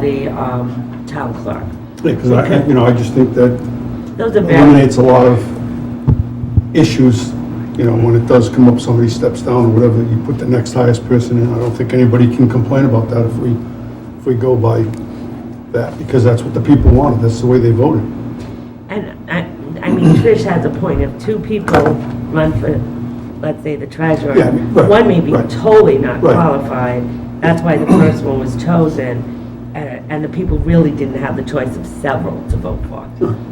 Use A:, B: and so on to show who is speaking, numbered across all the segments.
A: the um, town clerk.
B: Because I, you know, I just think that
A: Those are very,
B: eliminates a lot of issues, you know, when it does come up, somebody steps down or whatever, you put the next highest person in. I don't think anybody can complain about that if we, if we go by that, because that's what the people wanted, that's the way they voted.
A: and I, I mean, Trish has a point, if two people run for, let's say, the treasurer,
B: Yeah, right,
A: one may be
B: right.
A: totally not
B: Right.
A: qualified, that's why the first one was chosen, and, and the people really didn't have the choice of several to vote for.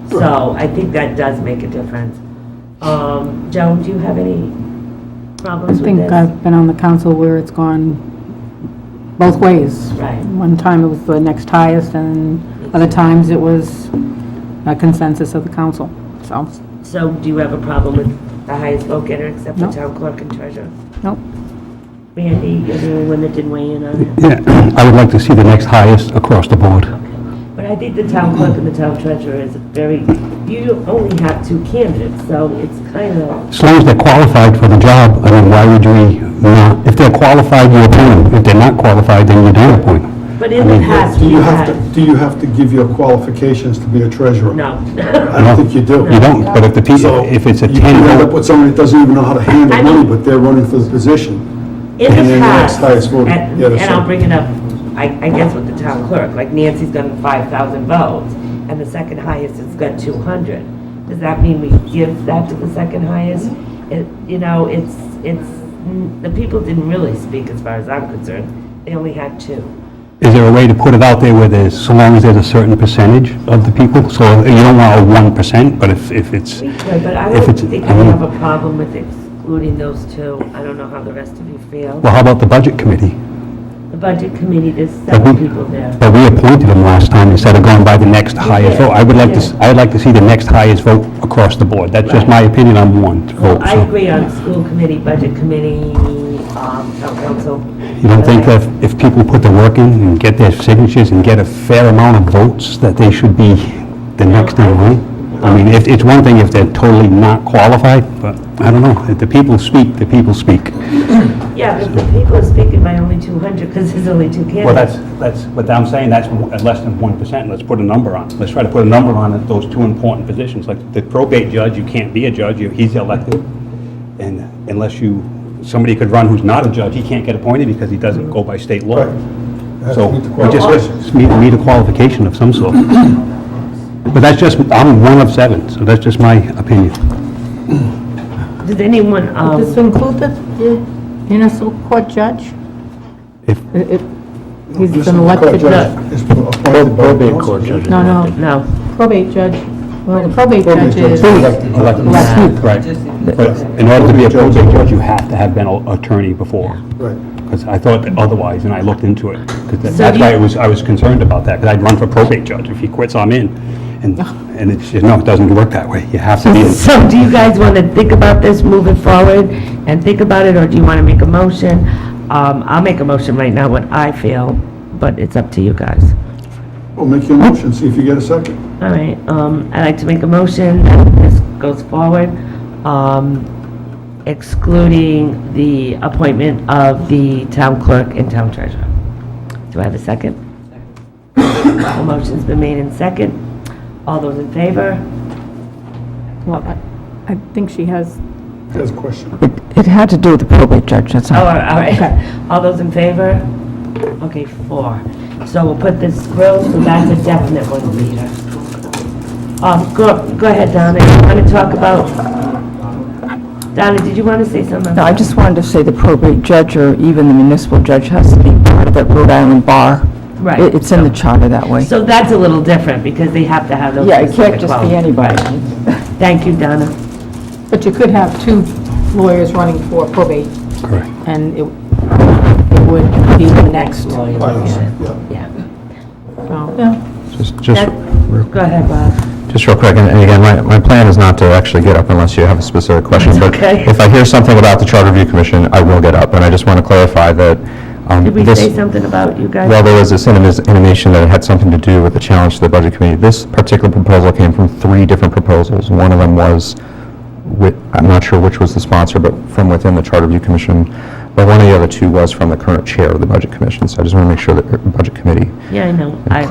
A: So I think that does make a difference. Um, Joan, do you have any
C: I
A: problems with
C: think
A: this?
C: I've been on the council where it's gone both ways.
A: Right.
C: One time it was the next highest, and other times it was a consensus of the council, so,
A: So do you have a problem with the highest vote getter except the
C: No.
A: town clerk and treasurer?
C: nope.
A: Randy, you're the only one that didn't weigh in on it.
D: Yeah, I would like to see the next highest across the board.
A: But I think the town clerk and the town treasurer is very, you only have two candidates, so it's kind of,
D: As long as they're qualified for the job, I mean, why would we not, if they're qualified, you appoint them. If they're not qualified, then you don't appoint them.
A: but in the past,
B: Do
A: we
B: you have to,
A: had,
B: do you have to give your qualifications to be a treasurer?
A: no.
B: I don't think you do.
D: You don't, but if the
B: So
D: people, if it's a
B: You can end up
D: 10,
B: with somebody that doesn't even know how to handle
A: I
B: money,
A: mean-
B: but they're running for the position.
A: In
B: And
A: the
B: then the next
A: past,
B: highest vote,
A: and
B: yeah,
A: and
B: that's
A: I'll
B: right.
A: bring it up, I, I guess with the town clerk, like Nancy's gotten five thousand votes, and the second highest has got two hundred. Does that mean we give that to the second highest? It, you know, it's, it's, the people didn't really speak as far as I'm concerned, they only had two.
D: is there a way to put it out there where there's, so long as there's a certain percentage of the people? So you don't want a 1%, but if, if it's,
A: We could, but I
D: If
A: don't
D: it's-
A: think I
D: I mean-
A: have a problem with excluding those two. I don't know how the rest of you feel.
D: well, how about the budget committee?
A: The budget committee, there's seven
D: we-
A: people there.
D: But we appointed them last time instead of going by the next highest vote. I would like to, s- I would like to see the next highest vote across the board. That's just my opinion on one vote.
A: Well, I
D: so.
A: agree on school committee, budget committee, um, town council.
D: You don't think that if people put the work in and get their signatures and get a fair amount of votes, that they should be the next in line? I mean, if- it's one thing if they're totally not qualified, but I don't know. If the people speak, the people speak.
A: Yeah, but the people are speaking by only 200 because there's only two candidates.
D: that's, but I'm saying that's less than 1%. Let's put a number on. Let's try to put a number on those two important positions. Like the probate judge, you can't be a judge, he's elected. And unless you, somebody could run who's not a judge, he can't get appointed because he doesn't go by state law.
B: Has to
D: So,
B: meet the
D: we
B: qualifications.
D: just meet, meet a qualification of some sort. But that's just, I'm one of seven, so that's just my opinion.
A: Does anyone, um,
E: Does it include the the municipal court judge?
D: If-
E: If He's
B: Just
E: been
B: the court
E: elected,
B: judge is appointed by the council.
E: no, no,
A: no,
E: probate judge, well, the probate
B: Probate
E: judge
B: judge is
E: is,
B: elected.
E: Elected.
D: Right. But in order to be a probate judge, you have to have been an attorney before.
B: Right.
D: Because I thought that otherwise, and I looked into it. 'Cause that-
A: So
D: That's
A: you-
D: why I was, I was concerned about that, because I'd run for probate judge. If he quits, I'm in. And, and it's, just- no, it doesn't work that way. You have to be. in-
A: So do you guys want to think about this moving forward and think about it, or do you want to make a motion? Um, I'll make a motion right now, what I feel, but it's up to you guys.
B: Well, make your motion, see if you get a second.
A: All right, um, I'd like to make a motion that this goes forward, um, excluding the appointment of the town clerk and town treasurer. Do I have a second? A motion's been made in second. All those in favor?
E: well, I- I think she has,
B: That's a question.
F: It had to do with the probate judge, that's
A: Oh, all
F: all.
A: right. All those in favor? Okay, four. So we'll put this through, so that's a definite one, Peter. Um, go, go ahead, Donna, you want to talk about? Donna, did you want to say something?
F: No, I just wanted to say the probate judge or even the municipal judge has to be part of that Rhode Island bar.
A: Right.
F: It- It's in the charter that way.
A: So that's a little different, because they have to have those.
F: Yeah, it can't
A: specific
F: just be
A: qualities.
F: anybody.
A: Thank you, Donna.
E: but you could have two lawyers running for probate,
D: Correct.
E: and it it would be the next. Oh.
A: Yeah.
E: Yeah.
G: Just, just,
A: That- Go ahead, Bob.
G: just real quick, and and again, my, my plan is not to actually get up unless you have a specific question. But
A: okay.
G: if I hear something about the Charter Review Commission, I will get up, and I just want to clarify that um,
A: Did we
G: this-
A: say something about you guys?
G: Well, there was this intimis- intimation that it had something to do with the challenge to the Budget Committee. This particular proposal came from three different proposals. One of them was, wi- I'm not sure which was the sponsor, but from within the Charter Review Commission. But one of the other two was from the current chair of the Budget Commission, so I just want to make sure that the Budget Committee
A: Yeah, I know. I-